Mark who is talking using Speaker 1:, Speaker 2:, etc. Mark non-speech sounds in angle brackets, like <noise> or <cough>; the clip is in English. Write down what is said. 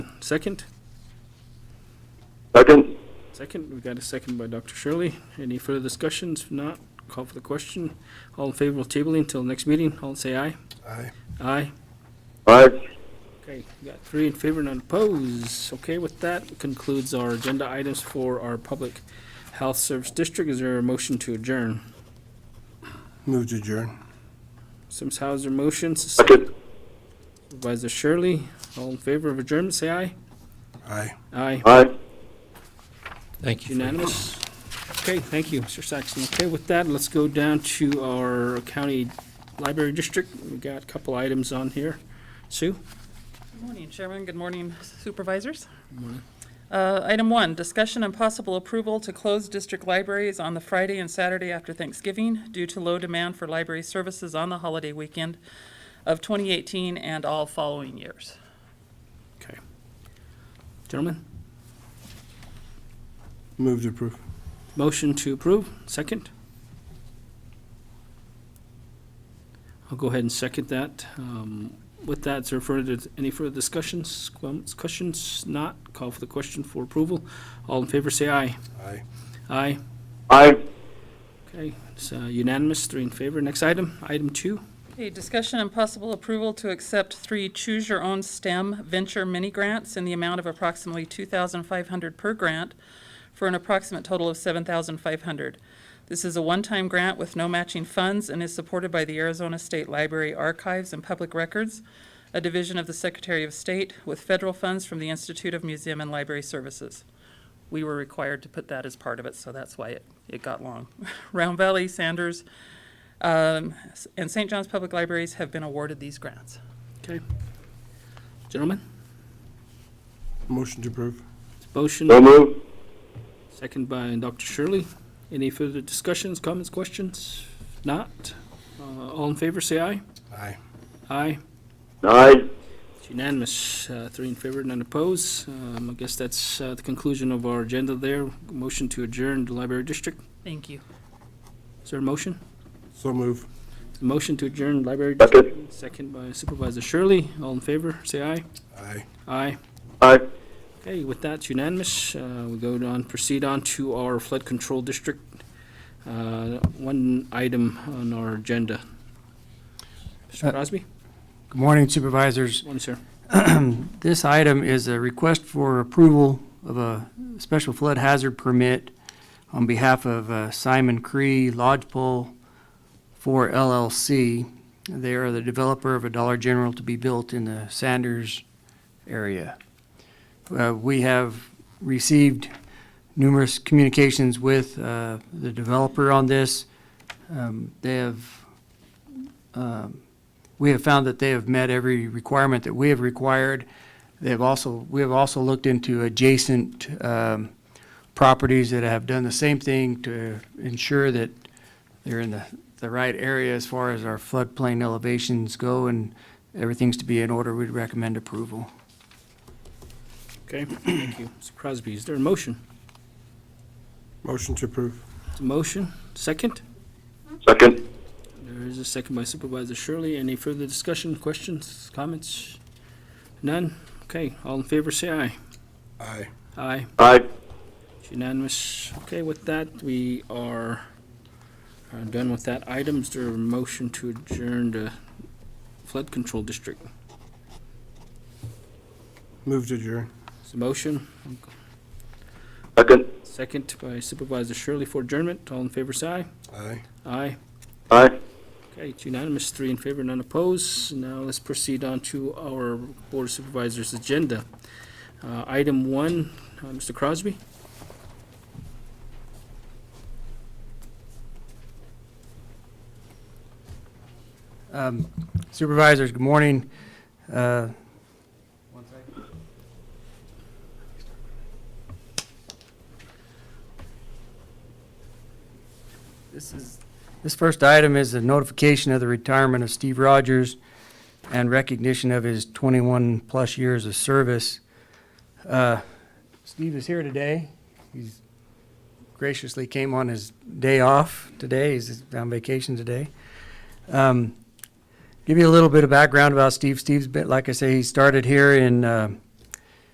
Speaker 1: Second?
Speaker 2: Second?
Speaker 1: Second, we got a second by Dr. Shirley. Any further discussions? If not, call for the question. All in favor of tabling until next meeting, all say aye.
Speaker 3: Aye.
Speaker 1: Aye.
Speaker 2: Aye.
Speaker 1: Okay, we got three in favor, none opposed. Okay, with that concludes our agenda items for our Public Health Service District. Is there a motion to adjourn?
Speaker 3: Move to adjourn.
Speaker 1: Sims Hauser motions,
Speaker 2: Second?
Speaker 1: Supervisor Shirley. All in favor of adjournment, say aye.
Speaker 3: Aye.
Speaker 1: Aye.
Speaker 2: Aye.
Speaker 4: Thank you.
Speaker 1: Unanimous? Okay, thank you, Mr. Saxon. Okay, with that, let's go down to our county library district. We got a couple items on here. Sue?
Speaker 5: Good morning, Chairman. Good morning, Supervisors. Uh, Item one, discussion and possible approval to close district libraries on the Friday and Saturday after Thanksgiving due to low demand for library services on the holiday weekend of 2018 and all following years.
Speaker 1: Okay. Gentlemen,
Speaker 3: Move to approve.
Speaker 1: motion to approve, second? I'll go ahead and second that. Um, With that, is there further, any further discussions, Qualms, questions? Not, call for the question for approval. All in favor, say aye.
Speaker 3: Aye.
Speaker 1: Aye.
Speaker 2: Aye.
Speaker 1: Okay, it's uh, unanimous, three in favor. Next item, item two.
Speaker 5: Okay, discussion and possible approval to accept three Choose Your Own STEM Venture mini grants in the amount of approximately $2,500 per grant for an approximate total of $7,500. This is a one-time grant with no matching funds and is supported by the Arizona State Library Archives and Public Records, a division of the Secretary of State, with federal funds from the Institute of Museum and Library Services. We were required to put that as part of it, so that's why it, it got long. <laughs> Round Valley, Sanders, um, s- and St. John's Public Libraries have been awarded these grants.
Speaker 1: Okay. Gentlemen,
Speaker 3: Motion to approve.
Speaker 1: it's a motion,
Speaker 2: So move.
Speaker 1: second by Dr. Shirley. Any further discussions, comments, questions? Not? Uh, All in favor, say aye.
Speaker 3: Aye.
Speaker 1: Aye.
Speaker 2: Aye.
Speaker 1: It's unanimous, uh, three in favor, none opposed. Um, I guess that's uh, the conclusion of our agenda there. Motion to adjourn the library district.
Speaker 5: Thank you.
Speaker 1: Is there a motion?
Speaker 3: So move.
Speaker 1: Motion to adjourn library
Speaker 2: Second.
Speaker 1: district. Second by Supervisor Shirley. All in favor, say aye.
Speaker 3: Aye.
Speaker 1: Aye.
Speaker 2: Aye.
Speaker 1: Okay, with that, it's unanimous. Uh, We go on, proceed on to our flood control district. Uh, One item on our agenda. Mr.
Speaker 6: Uh,
Speaker 1: Crosby?
Speaker 6: Good morning Supervisors.
Speaker 1: Morning, sir.
Speaker 6: This item is a request for approval of a special flood hazard permit on behalf of uh, Simon Cree Lodgepole for LLC. They are the developer of a Dollar General to be built in the Sanders area. Uh, We have received numerous communications with uh, the developer on this. Um, They have um, we have found that they have met every requirement that we have required. They have also, we have also looked into adjacent um, properties that have done the same thing to ensure that they're in the, the right area as far as our floodplain elevations go, and everything's to be in order. We'd recommend approval.
Speaker 1: Okay, thank you. Mr. Crosby, is there a motion?
Speaker 3: Motion to approve.
Speaker 1: It's a motion, second?
Speaker 2: Second.
Speaker 1: There is a second by Supervisor Shirley. Any further discussion, questions, comments? None? Okay, all in favor, say aye.
Speaker 3: Aye.
Speaker 1: Aye.
Speaker 2: Aye.
Speaker 1: It's Unanimous. Okay, with that, we are uh, done with that item. Is there a motion to adjourn the flood control district?
Speaker 3: Move to adjourn.
Speaker 1: It's a motion,
Speaker 2: Second.
Speaker 1: second by Supervisor Shirley for adjournment. All in favor, say aye.
Speaker 3: Aye.
Speaker 1: Aye.
Speaker 2: Aye.
Speaker 1: Okay, it's unanimous, three in favor, none opposed. Now let's proceed on to our Board of Supervisors' agenda. Uh, Item one, uh, Mr. Crosby?
Speaker 6: Um, Supervisors, good morning. Uh, This is, this first item is the notification of the retirement of Steve Rogers and recognition of his 21-plus years of service. Uh, Steve is here today. He's graciously came on his day off today. He's on vacation today. Um, Give you a little bit of background about Steve. Steve's been, like I say, he started here in uh,